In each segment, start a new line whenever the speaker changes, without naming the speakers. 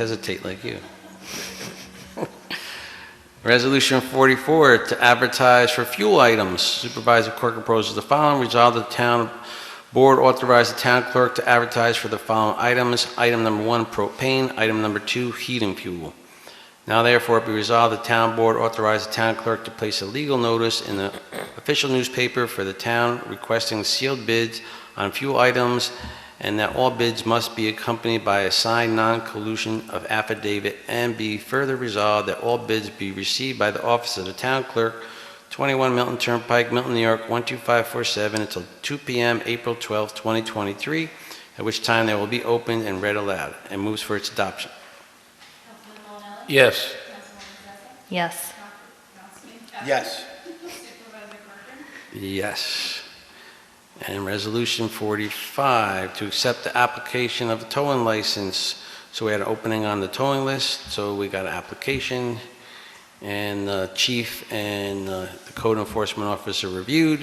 hesitate like you. Resolution 44, to advertise for fuel items. Supervisor Corr proposes the following. Resolve the town board authorize the town clerk to advertise for the following items. Item number one, propane. Item number two, heating fuel. Now therefore be resolved, the town board authorize the town clerk to place a legal notice in the official newspaper for the town requesting sealed bids on fuel items and that all bids must be accompanied by a signed non-collusion of affidavit, and be further resolved that all bids be received by the office of the town clerk, 21 Milton Turnpike, Milton, New York, 12547, until 2 PM, April 12, 2023, at which time they will be opened and read aloud, and moves for its adoption.
Yes.
Yes.
Yes.
Yes. And Resolution 45, to accept the application of a towing license. So we had an opening on the towing list, so we got an application, and uh, chief and uh, the code enforcement officer reviewed.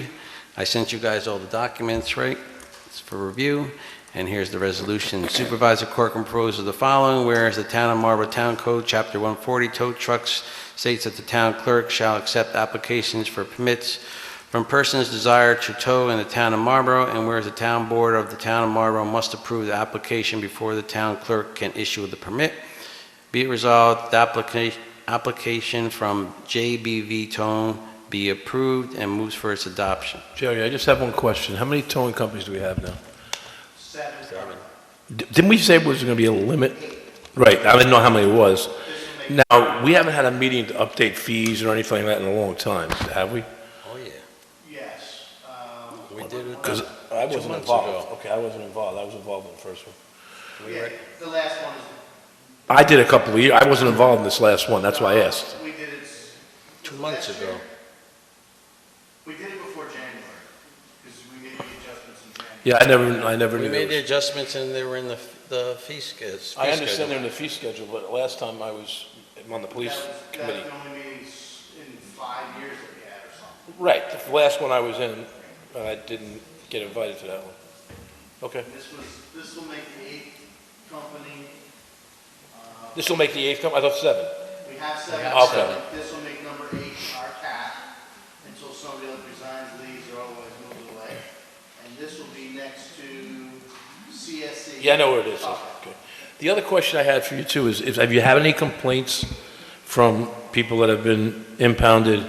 I sent you guys all the documents, right? It's for review, and here's the resolution. Supervisor Corcoran proposes the following, whereas the Town of Marlborough Town Code, Chapter 140, tow trucks states that the town clerk shall accept applications for permits from persons desired to tow in the town of Marlborough, and whereas the town board of the town of Marlborough must approve the application before the town clerk can issue the permit, be it resolved, the application, application from JBV Tone be approved and moves for its adoption.
Jerry, I just have one question. How many towing companies do we have now? Seven. Didn't we say it was going to be a limit? Right, I didn't know how many it was. Now, we haven't had a meeting to update fees or anything like that in a long time, have we?
Oh, yeah.
Yes, um,
We did it. uh,
Because I
Two
wasn't
months
involved. Okay, I wasn't involved. I was involved in the first one.
yeah, the last one is.
I did a couple of years. I wasn't involved in this last one. That's why I asked.
Uh, We did it. s-
Two months
last
ago.
year. We did it before January, because we made the adjustments in January.
Yeah, I never, I never
We
knew.
made the
there was-
adjustments and they were in the, the fee schedule.
I understand they're in the fee schedule, but last time I was on the police
That was, that
committee.
was the only meeting s- in five years that we had or something.
Right, the last one I was in, uh, I didn't get invited to that one. Okay,
This was, this will make the eighth company, uh,
this will make the eighth come, I thought seven.
we have seven.
have
so
seven.
This will make number eight our cap, until somebody else resigns, leaves, or otherwise moves away. And this will be next to CSC.
Yeah, I know where it is.
Okay.
Okay. The other question I had for you too is, if, have you had any complaints from people that have been impounded,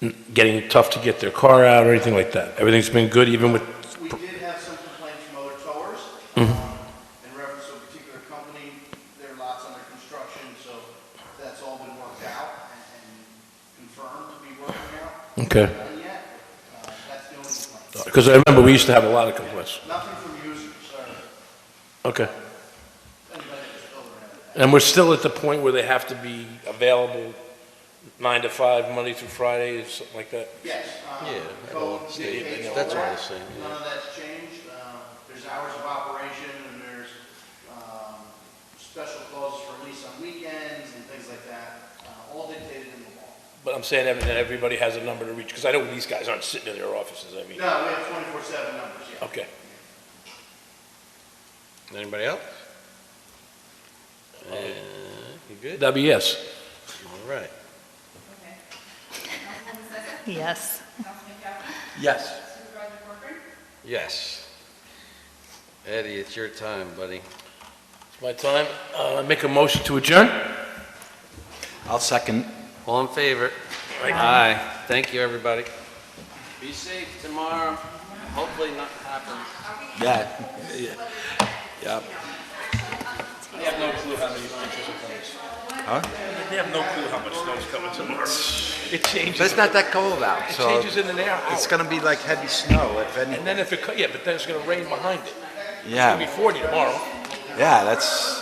n- getting tough to get their car out or anything like that? Everything's been good even with,
We did have some complaints from other towers um, in reference to a particular company. Their lot's under construction, so that's all been worked out and- and confirmed to be working out.
okay?
Done yet? Uh, That's the only complaint.
Because I remember we used to have a lot of complaints.
Nothing from users or
Okay.
anybody that's building it.
And we're still at the point where they have to be available nine to five, Monday through Friday, or something like that?
Yes. um,
Yeah, that all
code
stayed,
dictates all
that's all
that.
the same, yeah.
None of that's changed. Um, There's hours of operation and there's um, special clauses for lease on weekends and things like that, uh, all dictated in the law.
But I'm saying that everybody has a number to reach, because I know these guys aren't sitting in their offices, I mean.
No, we have twenty-four seven numbers, yeah.
Okay.
Anybody else? Uh, You good?
That'd be yes.
All right.
Yes.
Yes.
Yes. Eddie, it's your time, buddy.
It's my time. Uh, I make a motion to adjourn?
I'll second.
All in favor? Aye. Thank you, everybody. Be safe tomorrow. Hopefully not happen.
Yeah. Yep.
They have no clue how many inches of things.
Huh?
They have no clue how much snow's coming tomorrow. It
But
changes,
it's not that cold out,
it
so
changes in an air hour.
it's gonna be like heavy snow if any.
And then if it, co- yeah, but then it's gonna rain behind it. It's gonna be
Yeah,
forty tomorrow.
yeah, that's.